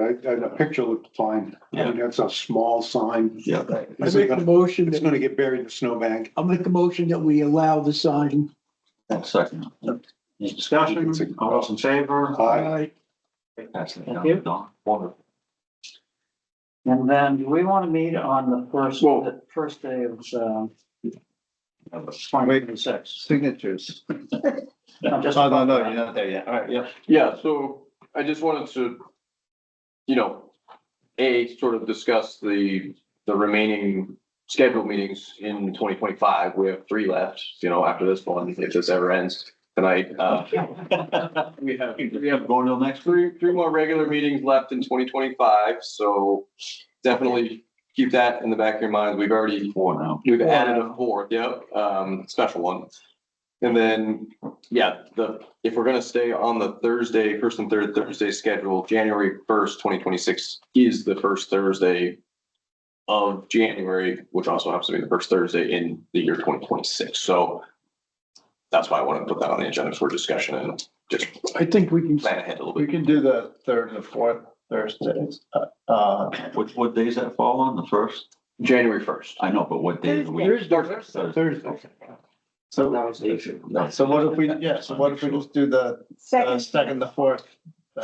I, I, the picture looked fine. I mean, that's a small sign. Yeah. I make a motion, It's that- gonna get buried in the snowbank. I'll make a motion that we allow the sign. I'll second. Any discussion? All those in favor? I, Pass it Thank down. you. Don. Wonderful. And then do we want to meet on the first, Well- the first day of, um, Have a- twenty six? Signatures. No, just- Oh, no, no, you're not there yet. All right, yeah. Yeah, so I just wanted to, you know, A, sort of discuss the, the remaining scheduled meetings in twenty twenty-five. We have three left, you know, after this one, if this ever ends tonight. Uh, We have, we have Going till next week. three, three more regular meetings left in twenty twenty-five, so definitely keep that in the back of your mind. We've already Four now. We've added a fourth, yep, um, special one. And then, yeah, the, if we're gonna stay on the Thursday, first and third Thursday schedule, January first, twenty twenty-six is the first Thursday of January, which also happens to be the first Thursday in the year twenty twenty-six, so that's why I wanted to put that on the agenda for discussion and just I think we can, plan ahead a little We bit. can do the third and the fourth Thursdays. Uh, Uh, Which, what days that fall on? The first? January first. I know, but what day of the week? Thursday. Thursday. so, so what if we, yeah, so what if we just do the uh, Second. second, the fourth?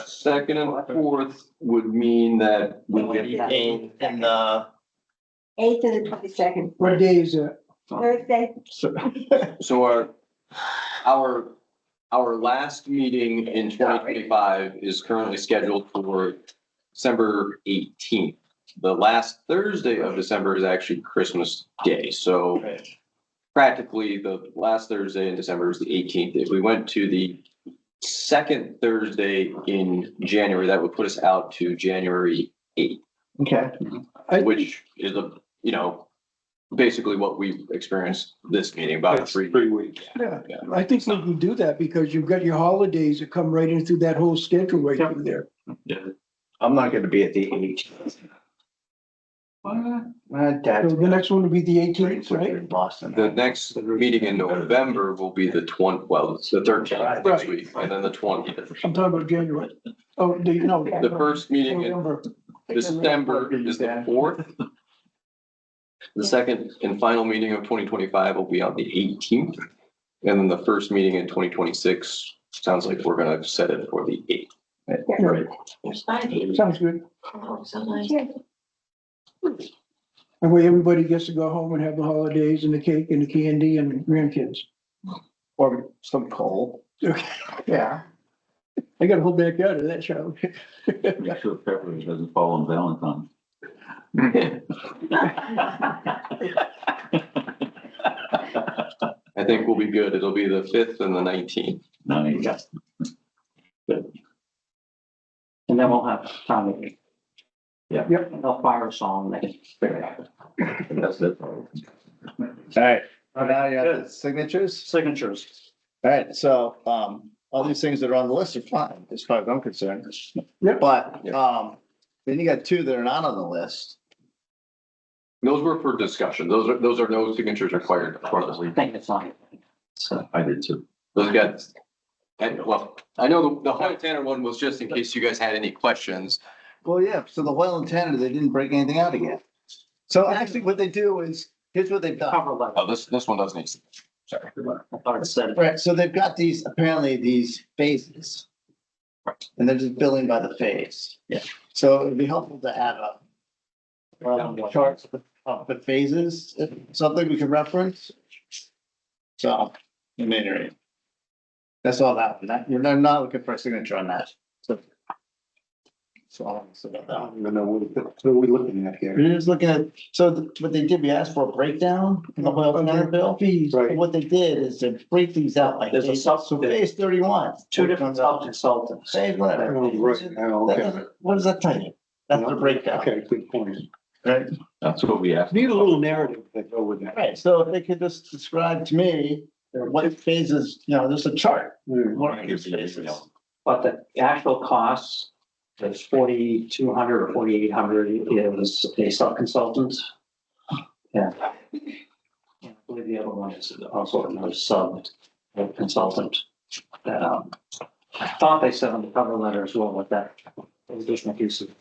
Second and fourth would mean that we would be in And, uh, Eighth to the twenty-second, What day is it? Thursday, so- So our, our, our last meeting in twenty twenty-five is currently scheduled for December eighteenth. The last Thursday of December is actually Christmas Day, so practically the last Thursday in December is the eighteenth. If we went to the second Thursday in January, that would put us out to January eighth, okay, I think- which is a, you know, basically what we experienced this meeting, about that's three. three weeks. Yeah, Yeah. I think we can do that because you've got your holidays that come right in through that whole schedule right through there. I'm not gonna be at the eight. My So dad's the next one will be the eighteenth, we're right? in Boston. The next meeting in November will be the twenty, well, it's the thirteenth this Right. week, and then the twentieth. I'm talking about January. Oh, the, no. The first meeting in November. December is the fourth. The second and final meeting of twenty twenty-five will be on the eighteenth. And then the first meeting in twenty twenty-six, sounds like we're gonna set it for the eighth. Right. Sounds good. Yeah. That way everybody gets to go home and have the holidays and the cake and the candy and grandkids. Or some coal. Yeah. I got a whole backyard of that, Charlie. Make sure February doesn't fall on Valentine's. I think we'll be good. It'll be the fifth and the nineteenth. Nice. And then we'll have Tommy. Yeah. Yep. They'll fire us all next. That's it. All right, Oh, now you have the signatures. Signatures. All right, so, um, all these things that are on the list are fine, as far as I'm concerned. Yep. But, um, then you got two that are not on the list. Those were for discussion. Those are, those are no signatures required for those. I think it's on. I did too. Those guys. And well, I know the, the Hoyt Tanner one was just in case you guys had any questions. Well, yeah, so the well intended, they didn't break anything out again. So actually, what they do is, here's what they've done. Cover letter. Oh, this, this one doesn't need. Sorry. I thought it said it. Right, so they've got these, apparently these phases. And they're just billing by the phase. Yeah. So it'd be helpful to add a. Um, charts of the- of the phases, if- something we can reference. So, I mean, anyway, That's all that, that, you're not- not looking for a signature on that, so. So, I'll answer about I that. don't even know what, what are we looking at here? We're just looking at, so th- what they did, we asked for a breakdown in the oil and water bill. Fees. Right. What they did is they break these out like. There's a sub- So phase thirty-one. Two different consultants. Same letter. Oh, Right, now, That okay. doesn't- What does that tell you? That's the breakdown, Okay, good point. right? That's what we asked. Need a little narrative to go with that. Right, so if they could just describe to me what phases, you know, there's a chart. Yeah. What are these phases? But the actual costs, that's forty-two hundred or forty-eight hundred is a sub-consultant. Yeah. And I believe the other one is also another sub-consultant. Um, I thought they said on the cover letter as well with that additional piece of